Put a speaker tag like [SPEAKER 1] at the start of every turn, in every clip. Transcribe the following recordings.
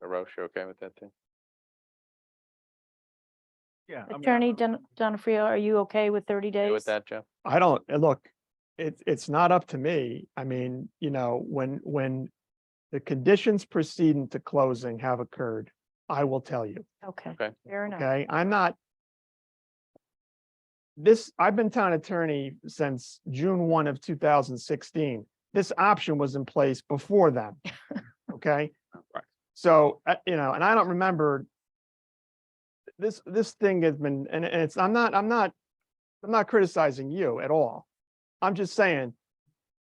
[SPEAKER 1] Roche, you okay with that too?
[SPEAKER 2] Yeah. I mean, I-
[SPEAKER 3] Attorney Don, Donofrio, are you okay with thirty
[SPEAKER 1] Okay
[SPEAKER 3] days?
[SPEAKER 1] With that, Jeff?
[SPEAKER 4] I don't, uh, look, it's, it's not up to me. I mean, you know, when, when the conditions preceding to closing have occurred, I will tell you,
[SPEAKER 3] Okay,
[SPEAKER 1] Okay.
[SPEAKER 3] fair enough.
[SPEAKER 4] okay? I'm not. This, I've been town attorney since June one of two thousand sixteen. This option was in place before then. Okay?
[SPEAKER 1] Right.
[SPEAKER 4] So, uh, you know, and I don't remember. This, this thing has been, and and it's, I'm not, I'm not, I'm not criticizing you at all. I'm just saying,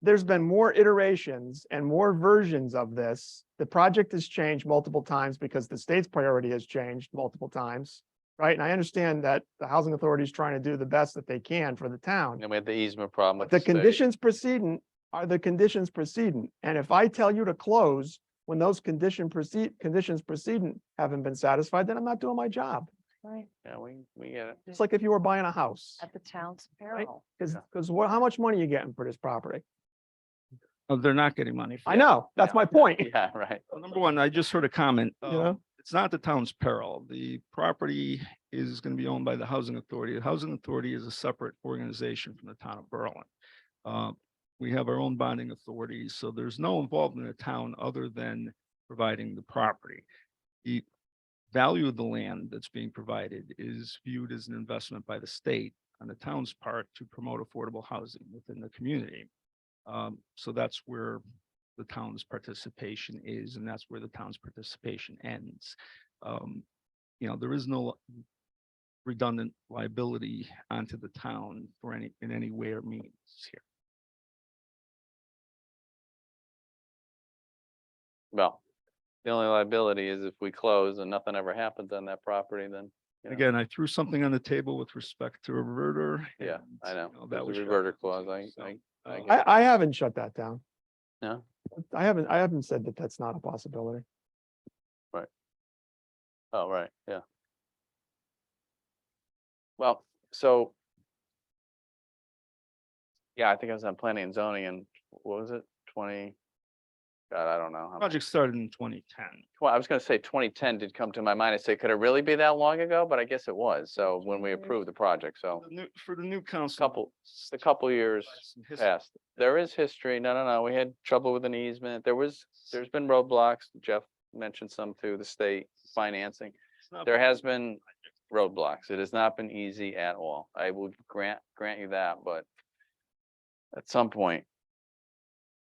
[SPEAKER 4] there's been more iterations and more versions of this. The project has changed multiple times because the state's priority has changed multiple times. Right? And I understand that the housing authority is trying to do the best that they can for the town.
[SPEAKER 1] And then we had the easement problem. with
[SPEAKER 4] The
[SPEAKER 1] state.
[SPEAKER 4] conditions precedent are the conditions precedent, and if I tell you to close when those condition proceed, conditions precedent haven't been satisfied, then I'm not doing my job.
[SPEAKER 3] Right,
[SPEAKER 1] Yeah, we, we get it.
[SPEAKER 4] It's like if you were buying a house,
[SPEAKER 3] At the town's peril.
[SPEAKER 4] because,
[SPEAKER 1] Yeah.
[SPEAKER 4] because what, how much money you getting for this property?
[SPEAKER 2] Oh, they're not getting money. for
[SPEAKER 4] I
[SPEAKER 2] that.
[SPEAKER 4] know, that's my point, you
[SPEAKER 1] Yeah, right.
[SPEAKER 2] Well, Number one, I just heard a comment. um,
[SPEAKER 4] know?
[SPEAKER 2] It's not the town's peril. The property is going to be owned by the housing authority. The housing authority is a separate organization from the town of Berlin. Uh, We have our own bonding authority, so there's no involvement of the town other than providing the property. The value of the land that's being provided is viewed as an investment by the state on the town's part to promote affordable housing within the community. Um, So that's where the town's participation is, and that's where the town's participation ends. Um, you know, there is no redundant liability onto the town for any, in any way or means here.
[SPEAKER 1] Well, the only liability is if we close and nothing ever happens on that property, then. you know,
[SPEAKER 2] Again, I threw something on the table with respect to a reverter.
[SPEAKER 1] Yeah,
[SPEAKER 2] and,
[SPEAKER 1] I know.
[SPEAKER 2] you oh, That
[SPEAKER 1] There's
[SPEAKER 2] was
[SPEAKER 1] a
[SPEAKER 2] shut
[SPEAKER 1] reverter
[SPEAKER 2] down,
[SPEAKER 1] clause. I,
[SPEAKER 2] so,
[SPEAKER 1] I,
[SPEAKER 2] uh,
[SPEAKER 1] get
[SPEAKER 4] I, I haven't shut that down.
[SPEAKER 1] No?
[SPEAKER 4] I haven't, I haven't said that that's not a possibility.
[SPEAKER 1] oh, right, yeah. Well, so. Yeah, I think I was on planning and zoning and what was it? Twenty? God, I don't know. how much.
[SPEAKER 2] Project started in twenty ten.
[SPEAKER 1] Well, I was gonna say twenty ten did come to my mind. I say, could it really be that long ago? But I guess it was. So when we approved the project, so
[SPEAKER 2] For the new council.
[SPEAKER 1] couple, a couple years
[SPEAKER 2] some history.
[SPEAKER 1] past. There is history. No, no, no. We had trouble with an easement. There was, there's been roadblocks. Jeff mentioned some through the state financing.
[SPEAKER 2] It's not
[SPEAKER 1] There
[SPEAKER 2] bad.
[SPEAKER 1] has been roadblocks. It has not been easy at all. I will grant, grant you that, but at some point,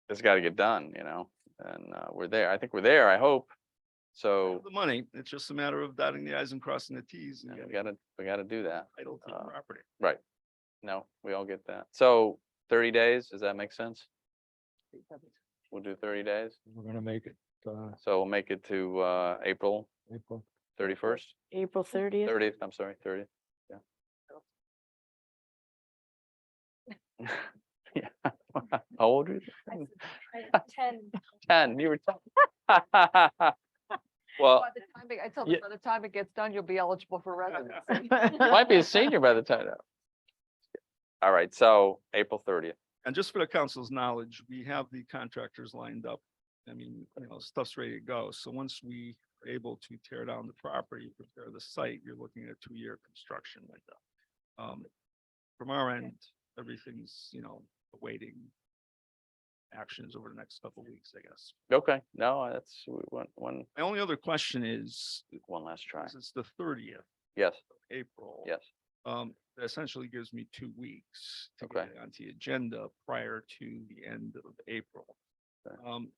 [SPEAKER 1] it's gotta get done, you know, and, uh, we're there. I think we're there, I hope.
[SPEAKER 2] We have
[SPEAKER 1] So
[SPEAKER 2] The money, it's just a matter of dotting the i's and crossing the t's and
[SPEAKER 1] yeah, we
[SPEAKER 2] getting
[SPEAKER 1] gotta, we gotta do that.
[SPEAKER 2] title to the
[SPEAKER 1] uh,
[SPEAKER 2] property.
[SPEAKER 1] No, we all get that. So thirty days, does that make sense? We'll do thirty days.
[SPEAKER 5] We're gonna make it, uh,
[SPEAKER 1] So we'll make it to, uh, April
[SPEAKER 5] April.
[SPEAKER 1] thirty-first,
[SPEAKER 3] April thirtieth.
[SPEAKER 1] thirtieth, I'm sorry, thirtieth, yeah. Yeah,
[SPEAKER 3] Oh.
[SPEAKER 1] how old are you?
[SPEAKER 4] Hmm.
[SPEAKER 6] Ten.
[SPEAKER 1] Ten, you were ten. Well,
[SPEAKER 6] By the time, it- I tell
[SPEAKER 1] Yeah.
[SPEAKER 6] them, by the time it gets done, you'll be eligible for residency.
[SPEAKER 1] you might be a senior by the time. that- All right, so April thirtieth,
[SPEAKER 2] And just for the council's knowledge, we have the contractors lined up. I mean, you know, stuff's ready to go. So once we are able to tear down the property, prepare the site, you're looking at a two-year construction window. Um, from our end, everything's, you know, awaiting actions over the next couple of weeks, I guess.
[SPEAKER 1] okay, no, that's we- one, one,
[SPEAKER 2] My only other question is,
[SPEAKER 1] one last try,
[SPEAKER 2] since it's the thirtieth
[SPEAKER 1] yes,
[SPEAKER 2] of April.
[SPEAKER 1] yes,
[SPEAKER 2] Um, that essentially gives me two weeks to
[SPEAKER 1] Okay.
[SPEAKER 2] get it onto the agenda prior to the end of April.
[SPEAKER 1] Okay.
[SPEAKER 2] Um,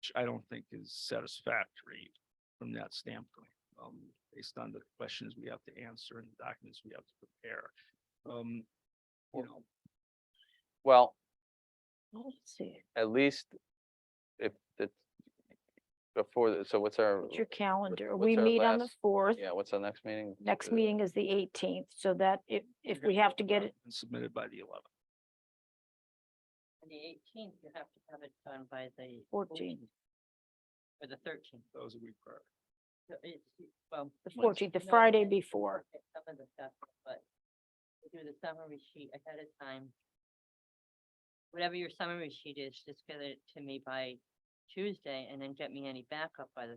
[SPEAKER 2] which I don't think is satisfactory from that standpoint, um, based on the questions we have to answer and the documents we have to prepare. Um, you know,
[SPEAKER 1] well,
[SPEAKER 3] See,
[SPEAKER 1] at least if it's before, the- so what's our?
[SPEAKER 3] it's your calendar.
[SPEAKER 1] what's
[SPEAKER 3] We
[SPEAKER 1] our
[SPEAKER 3] meet on the
[SPEAKER 1] last-
[SPEAKER 3] fourth.
[SPEAKER 1] Yeah, what's our next meeting?
[SPEAKER 3] Next
[SPEAKER 1] Uh,
[SPEAKER 3] meeting is the eighteenth, so that if, if we have to get it,
[SPEAKER 2] and Submitted by the eleventh.
[SPEAKER 7] On the eighteenth, you have to have it done by the.
[SPEAKER 3] 14th.
[SPEAKER 7] Or the thirteenth.
[SPEAKER 2] That was a week prior.
[SPEAKER 3] the fourteenth, the Friday before.
[SPEAKER 7] Some of the stuff, but you do the summary sheet ahead of time. Whatever your summary sheet is, just get it to me by Tuesday and then get me any backup by the